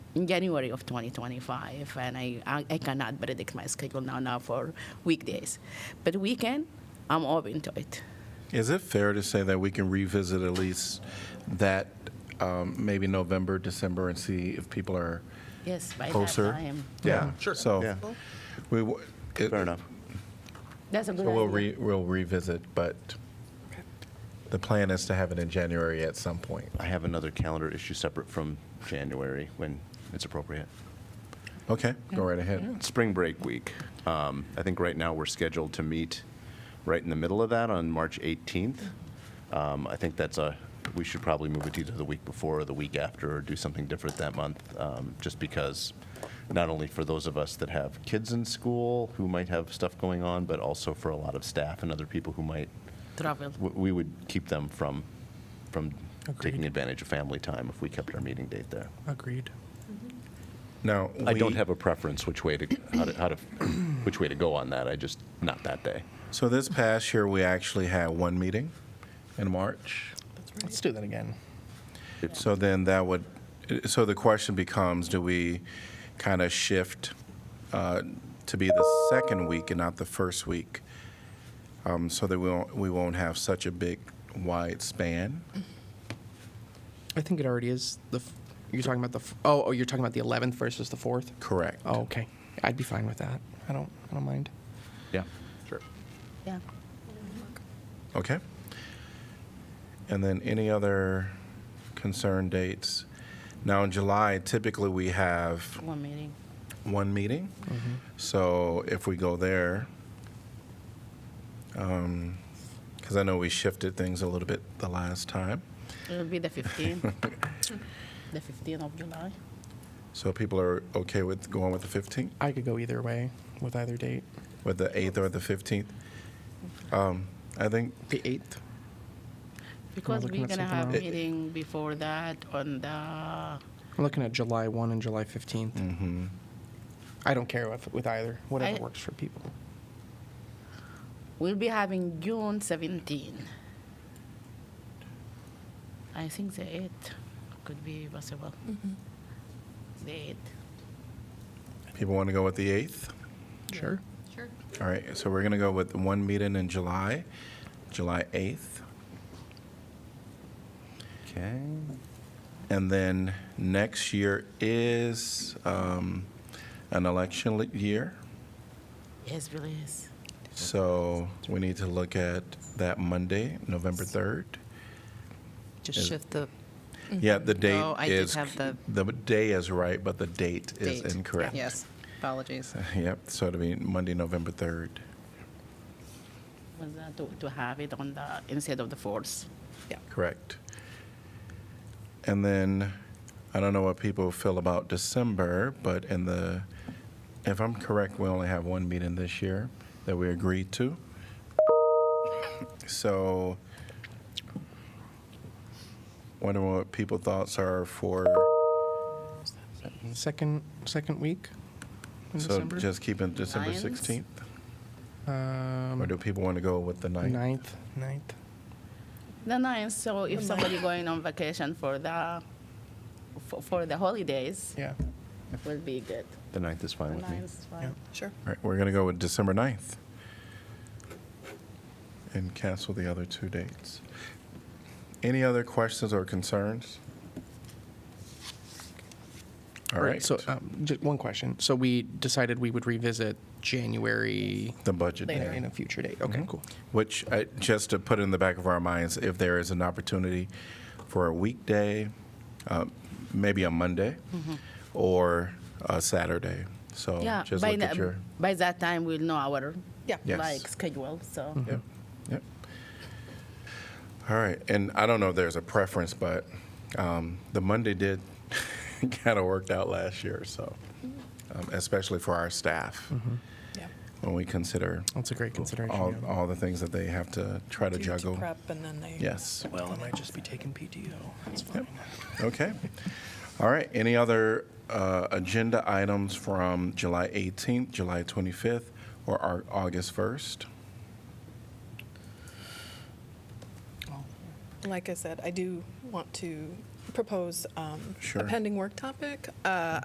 in January of 2025, and I, I, I cannot predict my schedule now, now for weekdays. But weekend, I'm open to it. Is it fair to say that we can revisit at least that, um, maybe November, December, and see if people are Yes, by closer? that time. Yeah, Sure. So, Yeah. we, w- it- Fair enough. That's a good so we'll idea. re, we'll revisit, but the plan is to have it in January at some point. I have another calendar issue separate from January when it's appropriate. Okay, go right ahead. Spring break week. Um, I think right now we're scheduled to meet right in the middle of that on March 18th. Um, I think that's a, we should probably move it either the week before or the week after or do something different that month, um, just because not only for those of us that have kids in school who might have stuff going on, but also for a lot of staff and other people who might, Travel. w- we would keep them from, from taking advantage of family time if we kept our meeting date there. Agreed. Now. I don't we- have a preference which way to how to, how to which way to go on that. I just not that day. So this past year, we actually had one meeting in March. Let's do that again. So then that would, so the question becomes, do we kind of shift uh, to be the second week and not the first week? um, So that we won't, we won't have such a big wide span? I think it already is the. F- you're talking about the. F- oh, oh, you're talking about the 11th versus the 4th. Correct. Oh, okay. I'd be fine with that. I don't. I don't mind. Yeah, sure. Yeah. Okay. And then any other concern dates? Now, in July, typically we have One meeting. one meeting. So if we go there, because I know we shifted things a little bit the last time, It'll be the 15th. the 15th of July. so people are okay with going with the 15th, I could go either way with either date. with the 8th or the 15th. Um, I think, The 8th. Because looking we're at gonna something have else. meeting before that on the I'm looking at July 1 and July 15th. I don't care if, with either. Whatever I- works for people. we'll be having June 17. I think the 8th could be possible. Mm-hmm. The 8th. people want to go with the 8th. Sure. Sure. All right, so we're going to go with one meeting in July, July 8th. Okay. And then next year is um, an election li- year. Yes, please. So we need to look at that Monday, November 3rd. Is- Just shift the, Yeah, the date No, Oh, I did is, have the- the day is right, but the date is Date, incorrect. yes, apologies. Yep, so it'll be Monday, November 3rd. Was that to, to have it on the instead of the 4th. Correct. And then, I don't know what people feel about December, but in the, if I'm correct, we only have one meeting this year that we agreed to. So, wondering what people thoughts are for, Second second week in so December. just keeping December Lions? 16th? Or um, do people want to go with the 9th? 9th. 9th. The 9th. So if somebody going on vacation for the for, for the holidays, Yeah. will be good. The 9th is fine The with me. 9th is fine. Yeah. Sure. All right, we're going to go with December 9th and cancel the other two dates. Any other questions or concerns? All right, So, uh, um, just one question. So we decided we would revisit January the budget, in, day, in a future date. Mm-hmm. Okay, cool. which, I- just to put in the back of our minds, if there is an opportunity for a weekday, uh, maybe a Monday, or a Saturday. So Mm-hmm. Yeah, just by, look at the- your, by that time, we'll know our Yeah. Yes. like schedule. So yep, yep. All right, and I don't know if there's a preference, but um, the Monday did kind of worked out last year, so, um, especially for our staff, Yeah. when we consider Mm-hmm. That's a great consideration. all, yeah. all the things that they have to try to Do- to juggle. Prep and then they. Yes, Well, I might just be taking PTO. That's fine. okay. All right, any other uh, agenda items from July 18th, July 25th, or our August 1st? Like I said, I do want um, to propose um, Sure. a pending work topic. Uh,